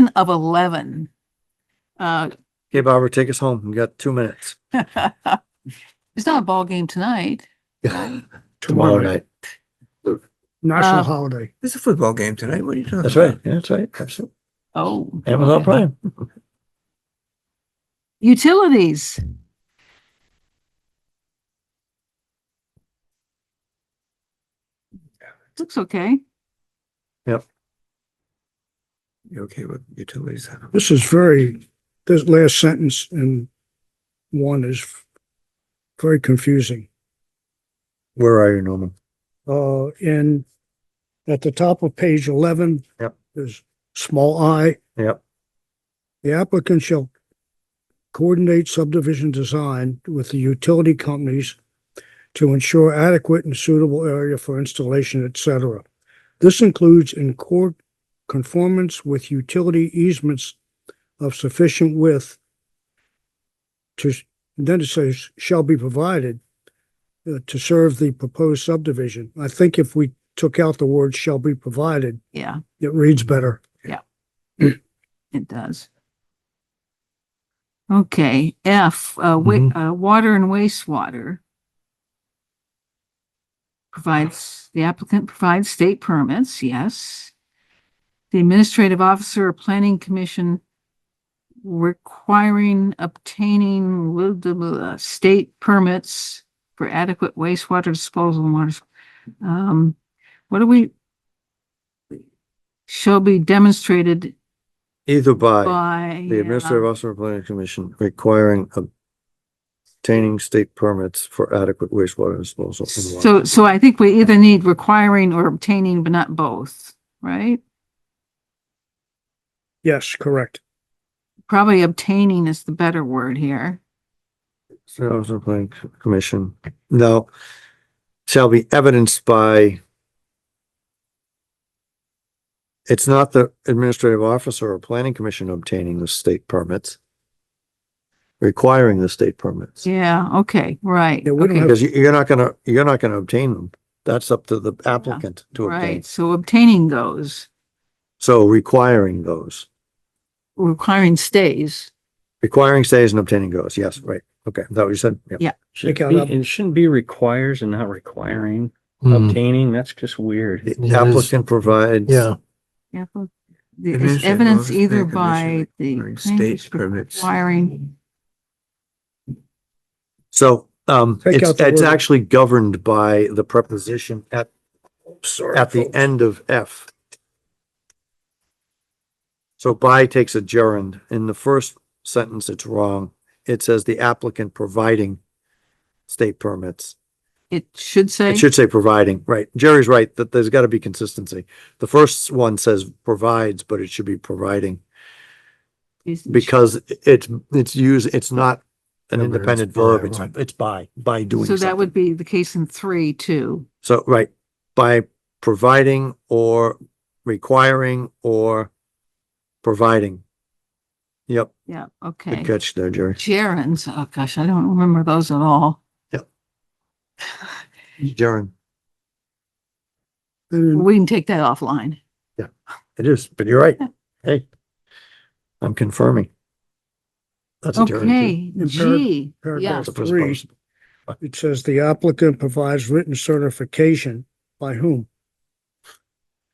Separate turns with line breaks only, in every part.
10 of 11. Uh,
Okay, Barbara, take us home. We got two minutes.
It's not a ball game tonight.
Tomorrow night.
Uh,
National holiday.
There's a football game tonight. What are you talking
Oh. That's
about?
right. Yeah, that's right. Absolutely.
Oh.
Amazon
okay.
Prime.
Utilities. Looks okay.
You okay with utilities? huh?
This is very, this last sentence in one is very confusing.
Where are you, Norman?
Uh, in, at the top of page eleven.
Yep.
There's small i.
Yep.
The applicant shall coordinate subdivision design with the utility companies to ensure adequate and suitable area for installation, et cetera. This includes in court conformance with utility easements of sufficient width to, then it says, shall be provided uh, to serve the proposed subdivision. I think if we took out the word shall be provided,
Yeah,
it reads better.
it does. Okay, F, uh, wa- uh, water and wastewater. Provides, the applicant provides state permits, yes. The administrative officer or planning commission requiring obtaining blah, blah, blah, state permits for adequate wastewater disposal and waters. Um, what do we? Shall be demonstrated
Either by
by. uh,
the administrative officer or planning commission requiring obtaining state permits for adequate wastewater disposal. and water.
So, so I think we either need requiring or obtaining, but not both, right?
Yes, correct.
Probably obtaining is the better word here.
Administrative Officer or planning c- commission. Now, shall be evidenced by it's not the administrative officer or planning commission obtaining the state permits, requiring the state permits.
Yeah, okay, right.
Yeah, we don't
okay,
have-
Because you, you're not gonna, you're not gonna obtain them. That's up to the applicant to obtain.
Right, so obtaining those,
So requiring those,
requiring stays.
requiring stays and obtaining goes. Yes, right. Okay. Is that what you said?
Yeah.
Should
Take out
be,
up-
it shouldn't be requires and not requiring,
Mm,
obtaining, that's just weird.
The applicant provides.
Yeah,
Yeah, but the- It's
Administrative
evidence
office,
either
planning commission
by the.
requiring State permits.
Requiring,
So, um,
Take
it's,
out the
it's
word.
actually governed by the preposition at, at the end of F. So by takes a gerund. In the first sentence, it's wrong. It says the applicant providing state permits.
it should say,
It should say providing, right. Jerry's right, that there's gotta be consistency. The first one says provides, but it should be providing
is-
because it's, it's use, it's not
Yeah, but
an
it's
independent
by,
verb. It's,
right.
it's by, by doing
so
something.
that would be the case in three too.
So, right, by providing or requiring or providing. Yep,
Yeah,
good
okay.
catch there, Jerry.
Gerunds, oh gosh, I don't remember those at all.
Jaren,
And
We can take that offline.
it is, but you're right. Hey, I'm confirming. That's a gerund. too.
Okay,
In par-
G, yeah,
It's
paragraph
a
three,
presupposed.
it says the applicant provides written certification by whom?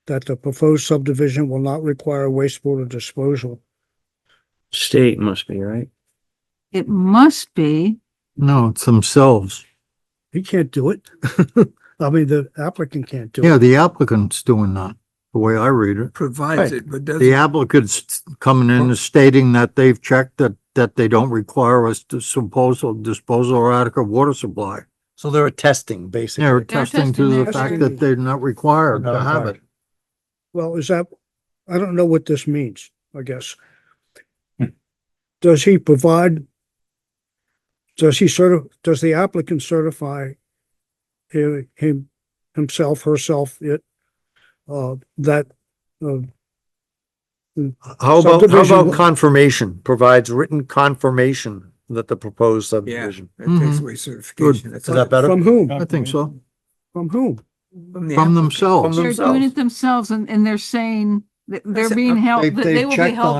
That the proposed subdivision will not require wastewater disposal.
State must be, right?
it must be,
no, it's themselves.
He can't do it. I mean, the applicant can't do it.
Yeah, the applicant's doing that, the way I read it.
Provides it, but
The
doesn't.
applicant's coming in and stating that they've checked that, that they don't require us to disposal, disposal or adequate water supply.
So they're a testing,
They're
basically.
attesting
testing
to
their
the fact
testing.
that they're not required
Not
to have
required.
it.
Well, is that, I don't know what this means, I guess. Does he provide? Does he certi, does the applicant certify hi- him, himself, herself, it, uh, that, uh,
How about, how
Subdivision-
about confirmation? Provides written confirmation that the proposed
Yeah, that
subdivision.
Mm-hmm.
Mm-hmm.
takes away certification. That's
Is that
all.
better?
from whom,
I think so,
from whom?
From the
from
applicant.
themselves.
they're doing it themselves and, and they're saying that they're being held,
They've-
that they
they've
will be
checked
held